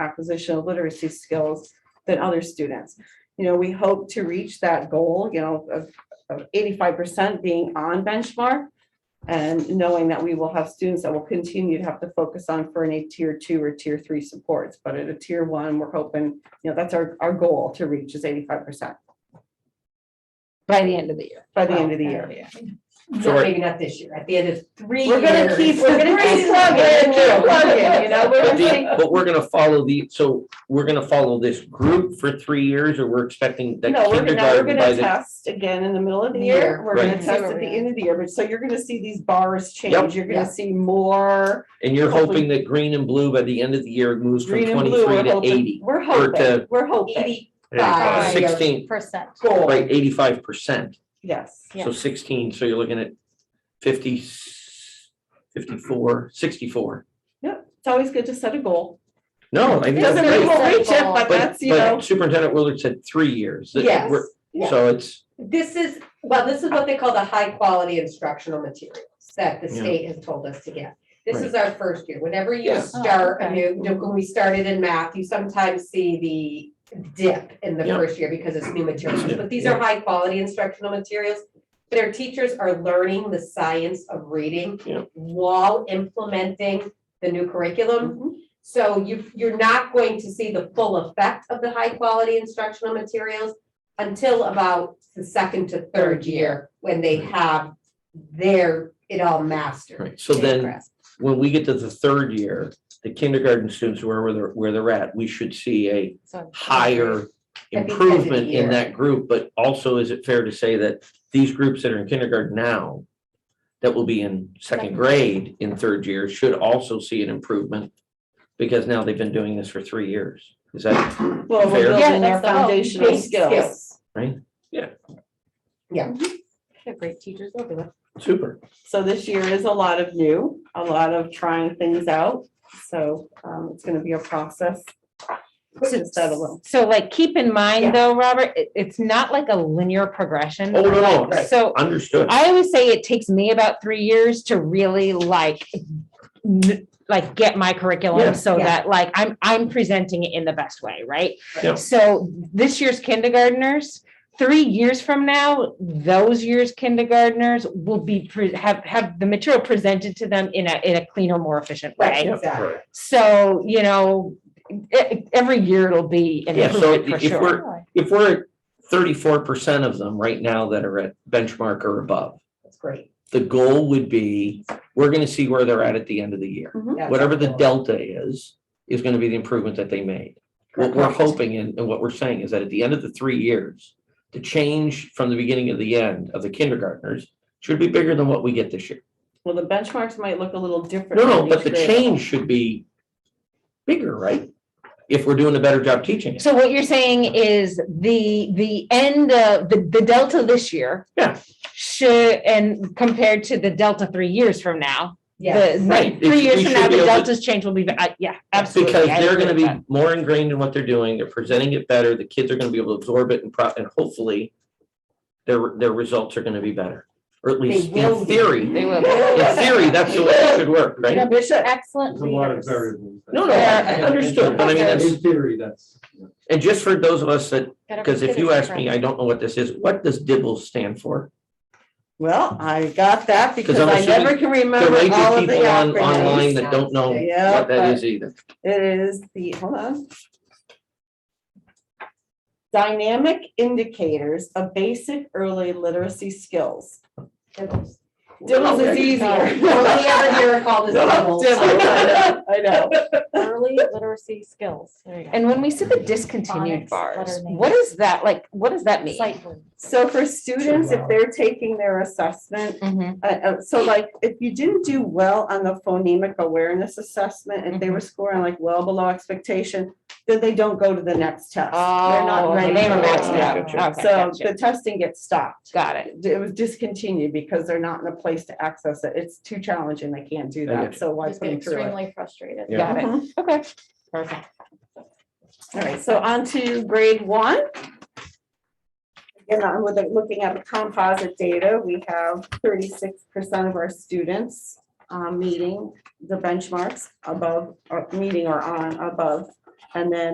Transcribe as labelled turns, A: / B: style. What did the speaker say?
A: compositional literacy skills than other students. You know, we hope to reach that goal, you know, of, of eighty-five percent being on benchmark. And knowing that we will have students that will continue to have to focus on for any tier two or tier three supports, but at a tier one, we're hoping, you know, that's our, our goal to reach is eighty-five percent
B: by the end of the year.
A: by the end of the year.
B: Oh, Yeah.
C: So
D: So
C: maybe not this year, at the end of three
A: We're gonna
C: years.
A: keep, we're gonna keep plugging, keep plugging, you know, we're
D: But
A: going
D: the- but we're gonna follow the, so we're gonna follow this group for three years or we're expecting that
A: No, we're gonna, now we're
D: kindergarten by
A: gonna
D: the.
A: test again in the middle of the year.
C: Year.
A: We're gonna
D: Right.
A: test at the end of the year, but so you're gonna see these bars change.
D: Yep.
A: You're
C: Yeah.
A: gonna see more
D: And you're
A: hopefully-
D: hoping that green and blue by the end of the year moves from
A: green and blue.
D: twenty-three
A: We're
D: to
A: hoping,
D: eighty.
A: we're
D: or
A: hoping,
D: to
A: we're hoping.
C: Eighty,
D: Uh,
C: Five.
D: Sixteen,
B: Percent.
A: Goal,
D: right, eighty-five percent.
A: yes.
B: Yeah.
D: So sixteen, so you're looking at 50, 54, 64.
A: Yep, it's always good to set a goal.
D: No, I mean, that's
A: Doesn't mean
D: great.
A: we'll reach it, but
D: But,
A: that's, you know,
D: but Superintendent Willard said three years. that
A: yes.
D: we're-
C: yeah.
D: So it's,
C: this is, well, this is what they call the high quality instructional materials that the
D: Yeah.
C: state has told us to get. This is our first year, whenever you
D: Yeah.
B: Oh,
C: start, a
B: okay.
C: new when we started in math, you sometimes see the dip in the
D: Yeah.
C: first year because it's new materials,
D: Yeah,
C: but these are high quality instructional materials. Their teachers are learning the science of reading
D: Yeah.
C: while implementing the new curriculum.
A: Mhm.
C: So you, you're not going to see the full effect of the high quality instructional materials until about the second to third year, when they have their, it all mastered.
D: right, so then when we get to the third year, the kindergarten students, wherever they're, where they're at, we should see a higher
C: At the end of the
D: improvement in
C: year.
D: that group, but also is it fair to say that these groups that are in kindergarten now that will be in second
B: Second.
D: grade in third year should also see an improvement because now they've been doing this for three years. Is that,
A: Well,
D: Fair.
A: we're
B: Yeah,
A: building our
B: that's the whole
A: foundational
C: base
A: skills.
C: skills.
B: Great teachers will do it.
D: super.
A: So this year is a lot of new, a lot of trying things out. So um, it's gonna be a process. Just that alone.
B: So like, keep in
C: Yeah.
B: mind though, Robert, it, it's not like a linear progression.
D: Oh, no, no,
B: Like,
D: right.
B: So
D: Understood.
B: I always say it takes me about three years to really like, n- like get my
D: Yeah.
B: curriculum so
C: Yeah.
B: that like I'm, I'm presenting it in the best way, right?
D: Yeah.
B: So this year's kindergarteners, three years from now, those year's kindergarteners will be, pre- have, have the material presented to them in a, in a cleaner, more efficient
C: Right,
B: way.
C: exactly.
B: So, you know, e- every year it'll be an
D: Yeah, so
B: improvement for
D: if we're-
B: sure.
D: If we're thirty-four percent of them right now that are at benchmark or above,
C: That's great.
D: the goal would be, we're gonna see where they're at at the end of the year.
C: That's
D: Whatever the
C: helpful.
D: delta is, is gonna be the improvement that they made. What we're hoping and, and what we're saying is that at the end of the three years, the change from the beginning to the end of the kindergartners should be bigger than what we get this year.
A: Well, the benchmarks might look a little different.
D: No, no,
A: for
D: but
A: each
D: the
A: grade.
D: change should be bigger, right? If we're doing a better job teaching it.
B: So what you're saying is the, the end of, the, the delta this year.
D: Yeah.
B: Should, and compared to the delta three years from now, the,
C: Yes,
D: Right,
B: like,
D: it's-
B: three years
D: we
B: from
D: should
B: now, the
D: be able to-
B: delta's change will be, I- yeah, absolutely.
D: Because
B: I
D: they're
B: agree
D: gonna
B: with
D: be
B: that.
D: more ingrained in what they're doing, they're presenting it better, the kids are gonna be able to absorb it and pro, and hopefully their, their results are gonna be better, or at least
C: will
D: in
C: be.
D: theory.
B: They will.
D: In theory, that's the way it should work, right?
B: Excellent
E: There's a lot of
B: leaders.
E: variables.
D: No, no,
B: I-
D: I understood, but I mean, that's-
E: In theory, that's.
D: And just for those of us that,
B: Gotta
D: because if
B: consider
D: you ask me,
B: different.
D: I don't know what this is, what does Dibble stand for?
A: Well, I got that because
D: I'm
A: I never
D: assuming
A: can
D: There
A: remember
D: might
A: all
D: be
A: of the
D: people on,
A: acronyms.
D: online that don't know
A: Yeah,
D: what that
A: but-
D: is either.
A: It is the, hold on. Dynamic indicators of basic early literacy skills.
C: Dibbles.
A: Dibbles is
D: Okay.
A: easier.
C: Sorry. Only other year I call this
A: Dibbles,
C: dibbles.
A: I know, I know.
F: early literacy skills. There you go.
B: And when we see the discontinued
F: Phonics,
B: bars,
F: letter names.
B: what is that, like, what does that mean?
F: Sight words.
A: So for students, if
E: wow.
A: they're taking their assessment
B: Mhm.
A: Uh, uh, so like, if you didn't do well on the phonemic awareness assessment, and they
B: Mm-hmm.
A: were scoring like well below expectation, then they don't go to the next test. They're not
B: Oh,
A: ready
B: they were
A: for
B: maxed
A: it.
B: out.
D: Gotcha.
B: Okay,
A: So
B: gotcha.
A: the testing gets stopped.
B: Got it.
A: It was discontinued because they're not in a place to access it. It's too challenging. They can't do
D: I
A: that.
D: gotcha.
A: So why
F: Just
A: put
F: get
A: them through it?
F: extremely frustrated.
D: Yeah.
B: Got it.
A: Mhm.
B: Okay. Perfect.
A: All right, so on to grade one. Again, I'm with- looking at the composite data, we have thirty-six percent of our students um, meeting the benchmarks above, or meeting or uh, on above And then